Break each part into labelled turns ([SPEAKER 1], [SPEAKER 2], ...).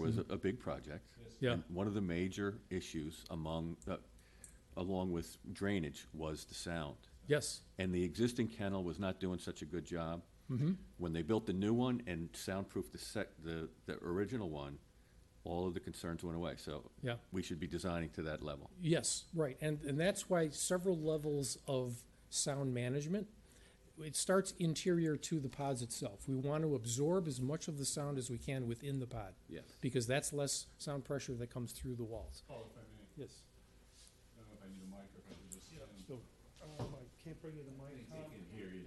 [SPEAKER 1] was a a big project.
[SPEAKER 2] Yeah.
[SPEAKER 1] And One of the major issues among, uh, along with drainage, was the sound.
[SPEAKER 2] Yes,
[SPEAKER 1] And the existing kennel was not doing such a good job. When they built the new one and soundproofed the sec, the, the original one, all of the concerns went away, so.
[SPEAKER 2] Yeah.
[SPEAKER 1] We should be designing to that level.
[SPEAKER 2] yes, right. And, and that's why several levels of sound management. It starts interior to the pods itself. We want to absorb as much of the sound as we can within the pod.
[SPEAKER 1] Yes.
[SPEAKER 2] Because that's less sound pressure that comes through the walls.
[SPEAKER 3] Paul, if I may, I
[SPEAKER 2] Yes.
[SPEAKER 3] don't know if I need a mic or if I can just. stand.
[SPEAKER 4] Um, I can't bring you the mic, Tom.
[SPEAKER 3] You can hear me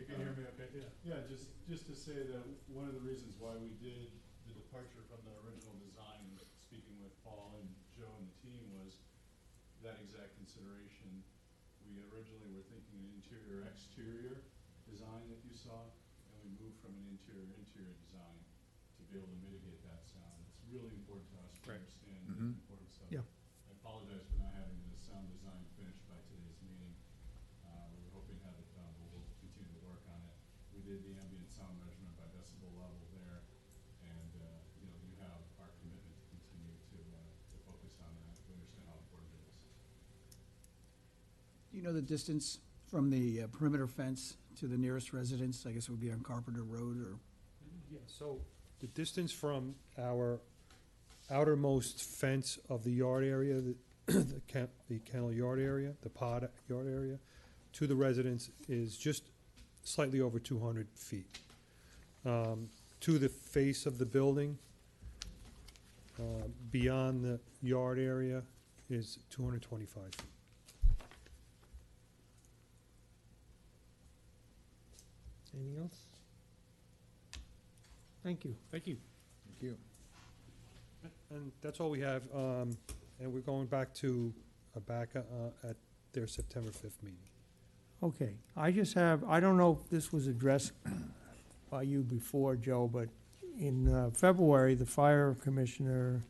[SPEAKER 3] okay? Yeah. Yeah, just, just to say that one of the reasons why we did the departure from the original design, speaking with Paul and Joe and the team, was that exact consideration. We originally were thinking an interior, exterior design that you saw, and we moved from an interior, interior design to be able to mitigate that sound. It's really important to us to
[SPEAKER 2] Right.
[SPEAKER 3] understand the importance of it.
[SPEAKER 4] Yeah.
[SPEAKER 3] I apologize for not having the sound design finished by today's meeting. Uh, we were hoping to have it done, but we'll continue to work on it. We did the ambient sound measurement by decibel level there, and, uh, you know, you have our commitment to continue to, uh, to focus on that. We understand how important it is.
[SPEAKER 4] Do you know the distance from the uh, perimeter fence to the nearest residence? I guess it would be on Carpenter Road or,
[SPEAKER 5] Yeah, so the distance from our outermost fence of the yard area, the- the ken- the kennel yard area, the pod yard area, to the residence is just slightly over two hundred feet. Um, To the face of the building, uh, beyond the yard area is two hundred twenty-five.
[SPEAKER 6] Anything else? Thank you.
[SPEAKER 2] Thank you.
[SPEAKER 7] Thank you.
[SPEAKER 5] And that's all we have, um, and we're going back to, uh, back, uh, at their September fifth meeting.
[SPEAKER 6] Okay, I just have, I don't know if this was addressed by you before, Joe, but in uh, February, the fire commissioner,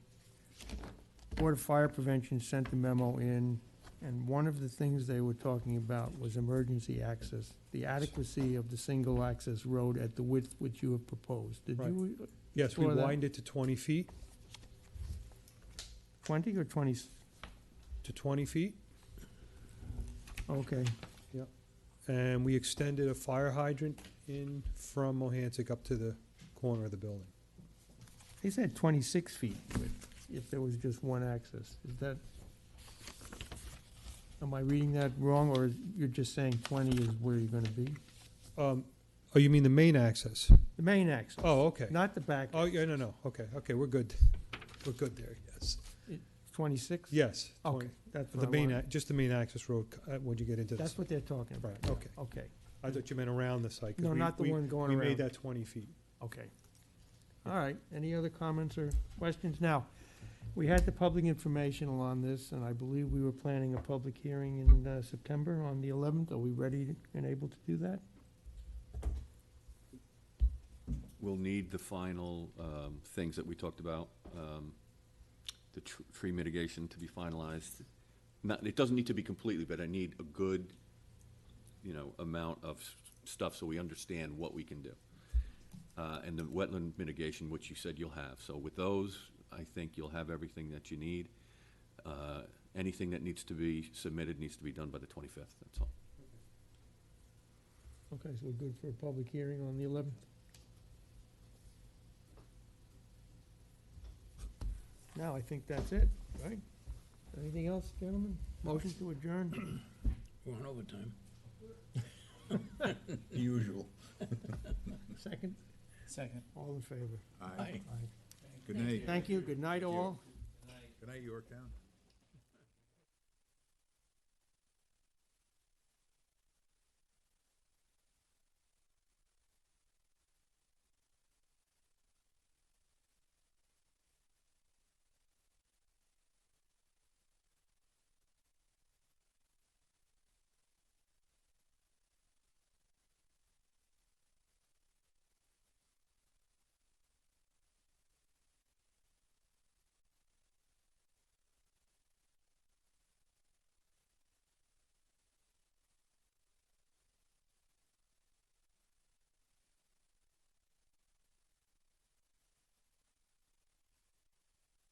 [SPEAKER 6] Board of Fire Prevention sent the memo in, and one of the things they were talking about was emergency access, the adequacy of the single-access road at the width which you have proposed. Did
[SPEAKER 5] Right.
[SPEAKER 6] you,
[SPEAKER 5] Yes, we
[SPEAKER 6] Explore that.
[SPEAKER 5] widened it to twenty feet,
[SPEAKER 6] twenty or twenty?
[SPEAKER 5] to twenty feet,
[SPEAKER 6] Okay,
[SPEAKER 5] and we extended a fire hydrant in from Mohansick up to the corner of the building.
[SPEAKER 6] they said twenty-six feet width, if there was just one access. Is that, am I reading that wrong, or is- you're just saying twenty is where you're gonna be?
[SPEAKER 5] Um, oh, you mean the main access?
[SPEAKER 6] The main access,
[SPEAKER 5] Oh, okay.
[SPEAKER 6] not the back,
[SPEAKER 5] Oh, yeah, no, no, okay, okay, we're good. We're good there, yes.
[SPEAKER 6] twenty-six?
[SPEAKER 5] Yes.
[SPEAKER 6] Okay,
[SPEAKER 5] 20
[SPEAKER 6] that's what
[SPEAKER 5] The
[SPEAKER 6] I
[SPEAKER 5] main,
[SPEAKER 6] wanted.
[SPEAKER 5] ac- just the main access road, uh, when you get into this.
[SPEAKER 6] That's what they're talking about,
[SPEAKER 5] Right, okay.
[SPEAKER 6] okay.
[SPEAKER 5] I thought you meant around the site. 'cause
[SPEAKER 6] No,
[SPEAKER 5] we-
[SPEAKER 6] not the
[SPEAKER 5] we-
[SPEAKER 6] one going
[SPEAKER 5] We
[SPEAKER 6] around.
[SPEAKER 5] made that twenty feet.
[SPEAKER 6] Okay. All right, any other comments or questions? Now, we had the public informational on this, and I believe we were planning a public hearing in uh, September on the 11th. Are we ready and able to do that?
[SPEAKER 1] We'll need the final, um, things that we talked about, um, the tr- tree mitigation to be finalized. Not, it doesn't need to be completely, but I need a good, you know, amount of s- stuff so we understand what we can do. Uh, and the wetland mitigation, which you said you'll have, so with those, I think you'll have everything that you need. Uh, anything that needs to be submitted needs to be done by the twenty-fifth, that's all.
[SPEAKER 6] Okay, so we're good for a public hearing on the 11th? Now, I think that's it, right? Anything else, gentlemen? Motion to adjourn?
[SPEAKER 7] We're on overtime. Usual.
[SPEAKER 6] Second?
[SPEAKER 4] second.
[SPEAKER 6] All in favor?
[SPEAKER 7] Aye.
[SPEAKER 6] Aye.
[SPEAKER 7] Good night.
[SPEAKER 6] Thank you, good night all.
[SPEAKER 7] Good night, Yorktown.